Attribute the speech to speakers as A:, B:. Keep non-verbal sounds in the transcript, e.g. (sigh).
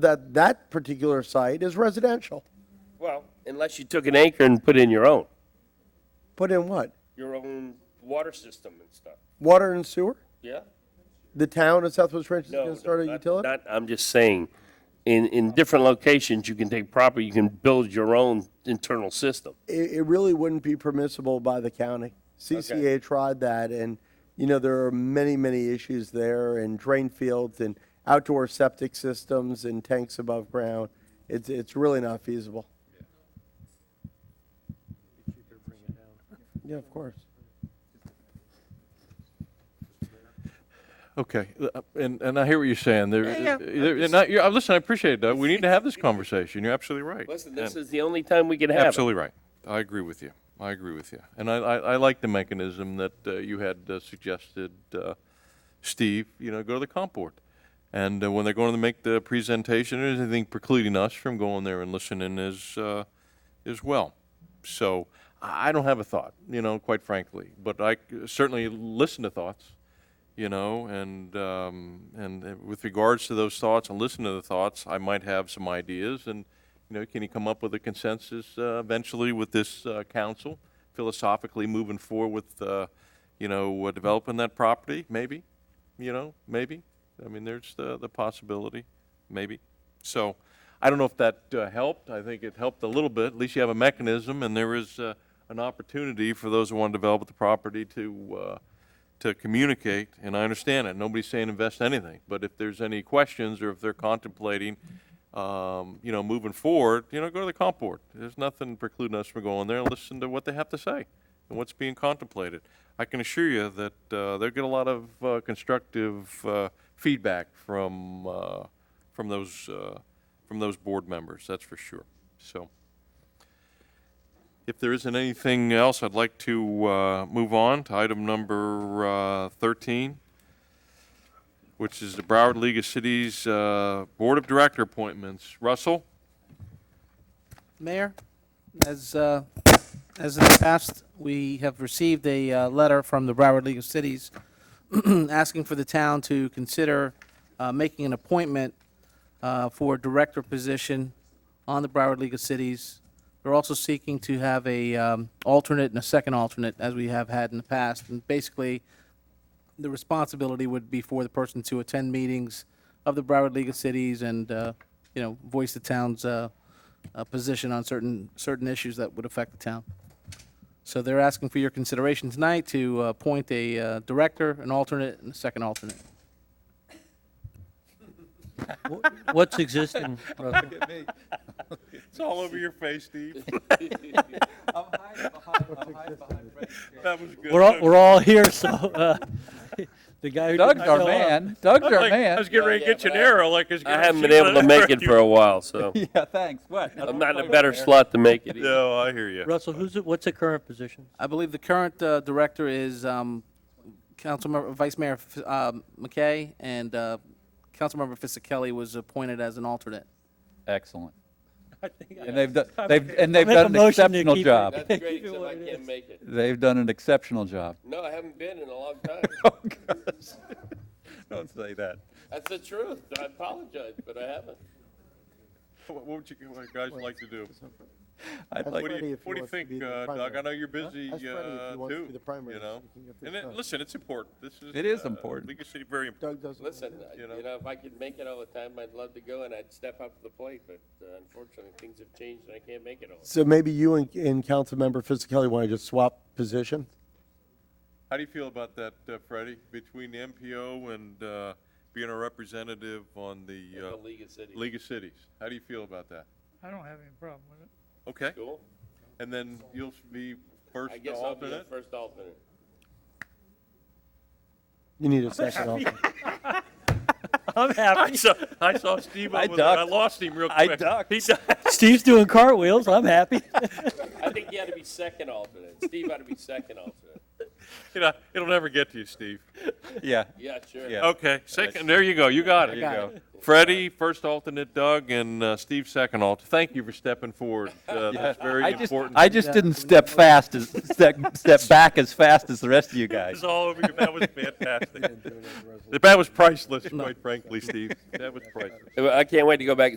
A: that that particular site is residential.
B: Well, unless you took an anchor and put in your own,
A: Put in what?
B: your own water system and stuff.
A: Water and sewer?
B: Yeah?
A: The town of Southwest Ranch is
B: No,
A: going to start a
B: not-
A: utility?
B: Not, I'm just saying, in, in different locations, you can take property, you can build your own internal system.
A: It, it really wouldn't be permissible by the county. CCA tried that and, you know, there are many, many issues there and drain fields and outdoor septic systems and tanks above ground. It's, it's really not feasible. Yeah, of course.
C: Okay, uh, and, and I hear what you're saying. There,
B: Yeah, yeah.
C: there- and I, you're, uh, listen, I appreciate that. We need to have this conversation. You're absolutely right.
B: Listen, this
C: And-
B: is the only time we can have it.
C: Absolutely right. I agree with you. I agree with you. And I, I, I like the mechanism that uh, you had uh, suggested, uh, Steve, you know, go to the comp board. And uh, when they're going to make the presentation, there's anything precluding us from going there and listening as, uh, as well. So I I don't have a thought, you know, quite frankly, but I c- certainly listen to thoughts you know, and um, and uh, with regards to those thoughts and listen to the thoughts, I might have some ideas, and you know, can you come up with a consensus uh, eventually with this uh, council, philosophically moving forward with, uh, you know, uh, developing that property, maybe, you know, maybe. I mean, there's the the possibility, maybe. So, I don't know if that uh, helped. I think it helped a little bit. At least you have a mechanism, and there is uh, an opportunity for those who want to develop the property to. Uh, to communicate, and I understand it. Nobody's saying invest anything, but if there's any questions or if they're contemplating, um, you know, moving forward, you know, go to the comp board. There's nothing precluding us from going there and listen to what they have to say and what's being contemplated. I can assure you that uh, they'll get a lot of uh, constructive uh, feedback from uh, from those uh, from those board members. That's for sure. So. If there isn't anything else, I'd like to uh, move on to item number uh, 13, which is the Broward League of Cities uh, Board of Director appointments. Russell?
D: Mayor, as, uh, as in the past, we have received a uh, letter from the Broward League of Cities (clears throat) asking for the town to consider uh, making an appointment uh, for a director position on the Broward League of Cities. They're also seeking to have a um, alternate and a second alternate, as we have had in the past. And basically, the responsibility would be for the person to attend meetings of the Broward League of Cities and, uh, you know, voice the town's uh, uh, position on certain, certain issues that would affect the town. So they're asking for your consideration tonight to uh, appoint a uh, director, an alternate, and a second alternate.
E: Wh- What's existing? Russell?
C: It's all over your
B: (laughs)
C: face, Steve. That was good.
E: We're all, we're all here, so, uh, (laughs) the guy who didn't uh,
F: Doug's our
E: show up-
F: man. Doug's our
C: (laughs) I was
F: man.
C: getting ready to get you an arrow like it's.
B: I haven't been able to make
C: (laughs)
B: it for a while, (laughs) so
F: Yeah, thanks. What?
B: I'm not in a better slot to make it. either.
C: No, I hear you.
E: Russell, who's, the- what's the current position?
D: I believe the current uh, director is um, Councilmember, Vice Mayor F- um, McKay, and uh, Councilmember Fisickelli was appointed as an alternate.
F: Excellent. And they've done, they've, and
E: I
F: they've
E: make a
F: done an
E: motion to
F: exceptional
E: keep it.
F: job.
B: (laughs) That's great, except I can't make it.
F: They've done an
C: (laughs)
F: exceptional job.
B: No, I haven't been in a long time.
C: Oh,
F: (laughs)
C: Don't say that.
B: That's the truth. I apologize, but I haven't.
C: What what would you what guys like to do?
F: I'd
C: What
F: like,
C: do
A: Freddie,
C: you,
A: if he
C: what do you
A: wants to
C: think,
A: be the
C: uh, Doug?
A: primary.
C: I know you're busy, uh,
A: Ask Freddie if he wants to be
C: too,
A: the primary,
C: you
A: so
C: know?
A: he can get
C: And
A: this
C: it-
A: done.
C: listen, it's important. This is.
F: It is
C: uh,
F: important.
C: League of Cities, very important.
A: Doug doesn't.
B: Listen, I-
C: You
B: you
C: know.
B: know, if I could make it all the time, I'd love to go and I'd step up to the plate, but uh, unfortunately, things have changed and I can't make it all.
A: So maybe you and, and Councilmember Fisickelli want to just swap positions?
C: How do you feel about that, uh, Freddie, between the MPO and uh, being a representative on the
B: The
C: uh,
B: League of Cities.
C: League of Cities? How do you feel about that?
G: I don't have any problem with it.
C: Okay,
B: Cool.
C: and then you'll be first
B: I guess I'll be the
C: alternate?
B: first alternate.
A: You need a second alternate.
E: I'm
F: (laughs)
E: happy.
C: saw, I saw Steve
F: I ducked.
C: lost him real
F: I (laughs) ducked.
C: He ducked.
E: Steve's doing cartwheels, I'm happy.
B: I think you ought to be second alternate. Steve ought to be second alternate.
C: You know, it'll never get to you, Steve.
F: Yeah.
B: Yeah, sure.
F: Yeah.
C: Okay, second, there you go, you got it.
F: There you go.
C: Freddie, first alternate, Doug, and uh, Steve, second alternate. Thank you for stepping forward. Uh, That's very
F: I just,
C: important.
F: I just didn't step fast as, (laughs) step, step back as fast as the rest of you guys.
C: It's all over you. That (laughs) was fantastic. That was priceless, quite frankly, Steve. That was priceless.
B: I can't wait to go back and